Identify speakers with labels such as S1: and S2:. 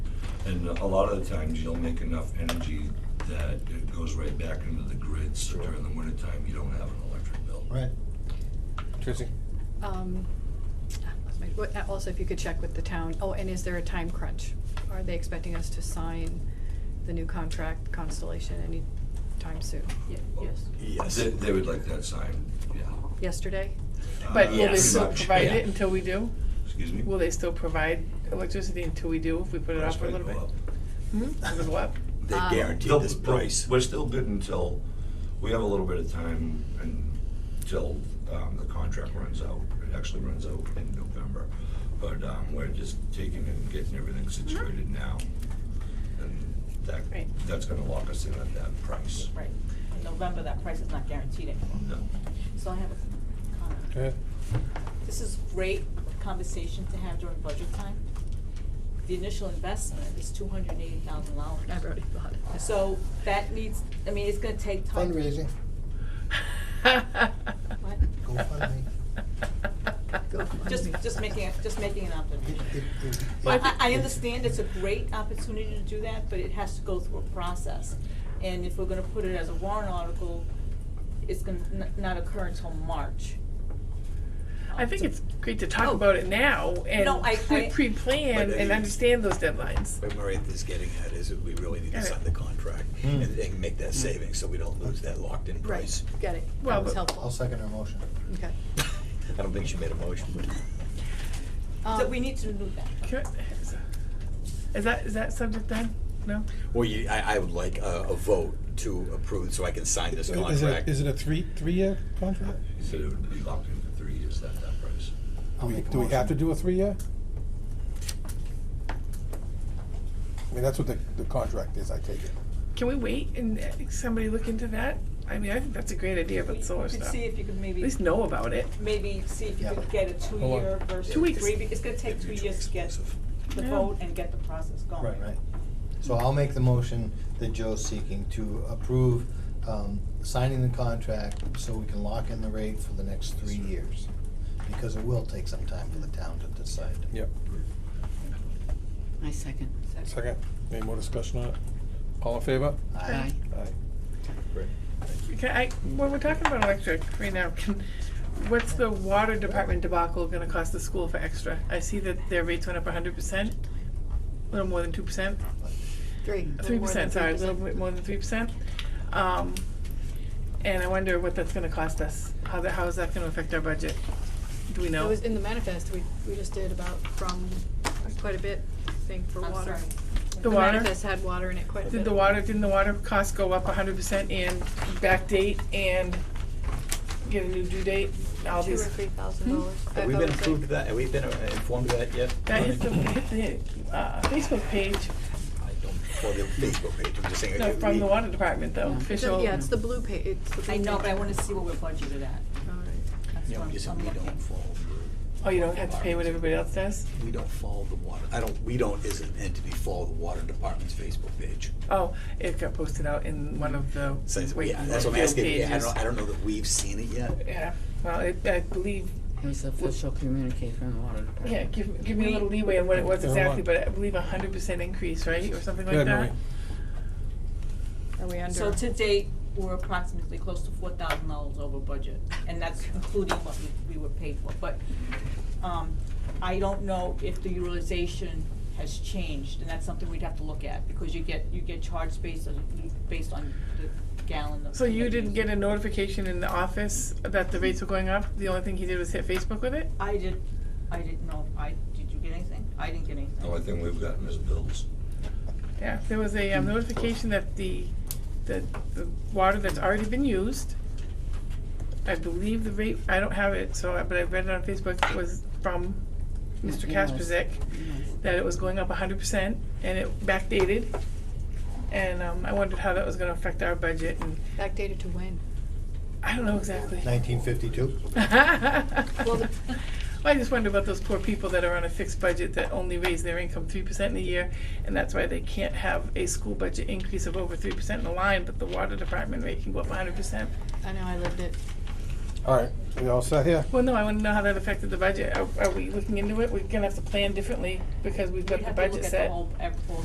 S1: And a lot of the times, you'll make enough energy that it goes right back into the grid, so during the wintertime, you don't have an electric bill.
S2: Right.
S3: Tracy?
S4: Um, that's my- what- Also, if you could check with the town, oh, and is there a time crunch? Are they expecting us to sign the new contract Constellation any time soon?
S5: Ye- Yes.
S1: They, they would like that sign, yeah.
S4: Yesterday?
S5: But will they
S1: pretty
S5: still
S1: Uh, much,
S5: provide
S1: yeah.
S5: it until we do?
S1: Excuse me?
S5: Will they still provide electricity until we do if we put it off for a little bit? Hmm? With what?
S6: They
S4: Um,
S6: guarantee
S1: They'll-
S6: this
S1: they'll-
S6: price.
S1: We're still good until, we have a little bit of time until um, the contract runs out. It actually runs out in November, but um, we're just taking and getting everything
S5: Mm-hmm.
S1: situated now. And that,
S5: Right.
S1: that's gonna lock us in at that price.
S7: Right, in November, that price is not guaranteed anymore.
S1: No.
S7: So I have a comment. This is great conversation to have during budget time. The initial investment is two hundred and eighty thousand dollars.
S4: I've already bought it.
S7: So that needs, I mean, it's gonna take time.
S2: Fundraising.
S7: What?
S2: GoFundMe.
S4: Go on.
S7: uh, Just, just making, a- just making an
S2: It-
S7: observation.
S2: it- it-
S7: I,
S2: it-
S7: I- I understand it's a great opportunity to do that, but it has to go through a process. And if we're gonna put it as a warrant article, it's gonna n- not occur until March.
S5: I think it's great to talk about it now and
S7: Oh. No, I-
S5: pre-
S7: I-
S5: pre-plan
S6: But, uh,
S5: and understand those deadlines.
S6: But Murray is getting at is that we really need to
S5: Got it.
S6: sign the contract and and make that savings so we don't lose that locked-in
S4: Right,
S6: price.
S4: got it.
S5: Well,
S4: That was
S5: but-
S2: I'll
S4: helpful.
S2: second her motion.
S4: Okay.
S6: I don't think she made a motion, but
S7: So
S4: Um,
S7: we need to do that.
S5: Can I- Is that, is that subject done? No?
S6: Well, you, I, I would like a, a vote to approve so I can sign this
S3: Is it,
S6: contract.
S3: is it a three, three-year contract?
S1: He said it would be locked in for three years at that price.
S2: I'll
S3: Do we-
S2: make a
S3: Do we have to
S2: motion.
S3: do a three-year? I mean, that's what the, the contract is, I take it.
S5: Can we wait and uh, somebody look into that? I mean, I think that's a great idea
S7: You
S5: about solar
S7: could
S5: stuff.
S7: see
S5: At
S7: if you could maybe,
S5: least know about it.
S7: maybe see if you
S2: Yeah.
S7: could get a two-year versus
S5: Two
S7: three,
S5: weeks.
S7: be- it's gonna take two years to get the
S5: Yeah.
S7: vote and get the process going.
S2: Right, right. So I'll make the motion that Joe's seeking to approve, um, signing the contract so we can lock in the rate for the next three years. Because it will take some time for the town to decide.
S3: Yep.
S8: I second.
S3: Second, any more discussion on it? All in favor?
S8: Aye.
S3: Aye.
S5: Can I, when we're talking about electric right now, can, what's the water department debacle gonna cost the school for extra? I see that their rates went up hundred percent, a little more than two percent,
S4: Three.
S5: three
S4: more than
S5: percent, sorry, a
S4: 3%.
S5: little bit more than three percent. Um, and I wonder what that's gonna cost us, how that, how is that gonna affect our budget? Do we
S4: It
S5: know?
S4: was in the manifest, we, we just did about from quite a bit, I think, for
S7: I'm
S4: water.
S7: sorry.
S5: The water,
S4: manifest had water in it quite a bit.
S5: did the water, didn't the water cost go up hundred percent and backdate and get a new due date, all
S4: Two or
S5: these?
S4: three thousand dollars.
S6: Have we been approved of that? Have we been uh, informed of that yet?
S5: That hit the, hit the, uh, Facebook page,
S6: I don't, for the Facebook page, I'm just saying.
S5: No,
S6: uh,
S5: from the
S6: we-
S5: water department though,
S8: Yeah.
S5: official.
S4: Yeah, it's the blue pa, it's the blue.
S7: I know, but I
S4: paper.
S7: wanna see what we're budgeted at.
S4: All right.
S7: That's
S6: You know,
S7: what I'm-
S6: just
S7: I'm
S6: we
S7: looking.
S6: don't follow,
S5: Oh, you don't have to pay what everybody else does?
S6: we don't follow the water, I don't, we don't as an entity follow the water department's Facebook page.
S5: Oh, it got posted out in one of the
S6: Since,
S5: wait,
S6: yeah, that's what I'm
S5: field
S6: asking, yeah, I
S5: pages.
S6: don't, I don't know that we've seen it yet.
S5: Yeah, well, it, I believe,
S8: It was official communique from the water department.
S5: yeah, give, give me a little leeway on what it was
S3: Hold
S5: exactly,
S3: on.
S5: but I believe a hundred percent increase, right, or something
S3: Go
S5: like
S3: ahead,
S5: that?
S3: Marie.
S4: Are we under?
S7: So to date, we're approximately close to four thousand dollars over budget, and that's including what we, we were paid for, but, um, I don't know if the utilization has changed, and that's something we'd have to look at, because you get, you get charged based on, based on the gallon of.
S5: So you didn't get a notification in the office that the rates were going up, the only thing he did was hit Facebook with it?
S7: I did, I didn't know, I, did you get anything? I didn't get anything.
S1: The only thing we've gotten is bills.
S5: Yeah, there was a um, notification that the, that the water that's already been used, I believe the rate, I don't have it, so, I- but I read it on Facebook, was from Mr.
S8: Yes.
S5: Kaspersick, that it was going up hundred percent, and it backdated. And, um, I wondered how that was gonna affect our budget, and
S4: Backdated to when?
S5: I don't know exactly.
S2: Nineteen fifty-two?
S5: Well, I just wonder about those poor people that are on a fixed budget that only raise their income three percent in a year, and that's why they can't have a school budget increase of over three percent in the line, but the water department rate can go up hundred percent.
S4: I know, I lived it.
S3: All right, we all set here?
S5: Well, no, I wanna know how that affected the budget. Are, are we looking into it? We're gonna have to plan differently because we've got
S7: We'd
S5: the
S7: have to look
S5: budget
S7: at
S5: set.
S7: the whole, ev- whole